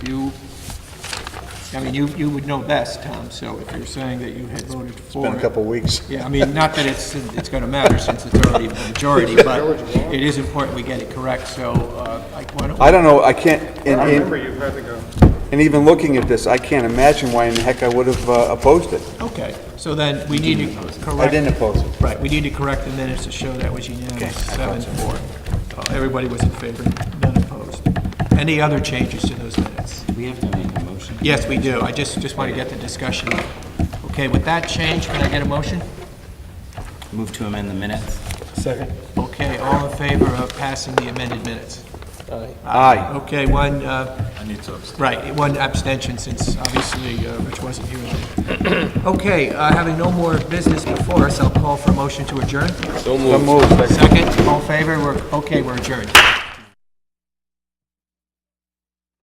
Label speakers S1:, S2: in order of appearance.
S1: I mean, you, you would know best, Tom, so if you're saying that you had voted for it.
S2: Been a couple weeks.
S1: Yeah, I mean, not that it's, it's going to matter since it's already a majority, but it is important we get it correct, so uh, I want
S2: I
S1: to,
S2: don't know, I can't, and,
S3: I remember
S2: and,
S3: you had to go.
S2: and even looking at this, I can't imagine why in the heck I would have uh, opposed it.
S1: okay, so then we need to correct.
S2: I didn't oppose it.
S1: Right, we need to correct the minutes to show that was unanimous, seven, four. Uh, Everybody was in favor, none opposed. Any other changes to those minutes?
S4: We have to make a motion.
S1: Yes, we do, I just, just want to get the discussion. Okay, with that change, can I get a motion?
S4: Move to amend the minutes.
S1: Okay, all in favor of passing the amended minutes?
S2: Aye.
S1: Okay, one, uh... I need to abstain. Right, one abstention, since obviously uh, Rich wasn't here. Okay, uh, having no more business before us, I'll call for a motion to adjourn.
S2: So moved.
S1: Second, all in favor, we're, okay, we're adjourned.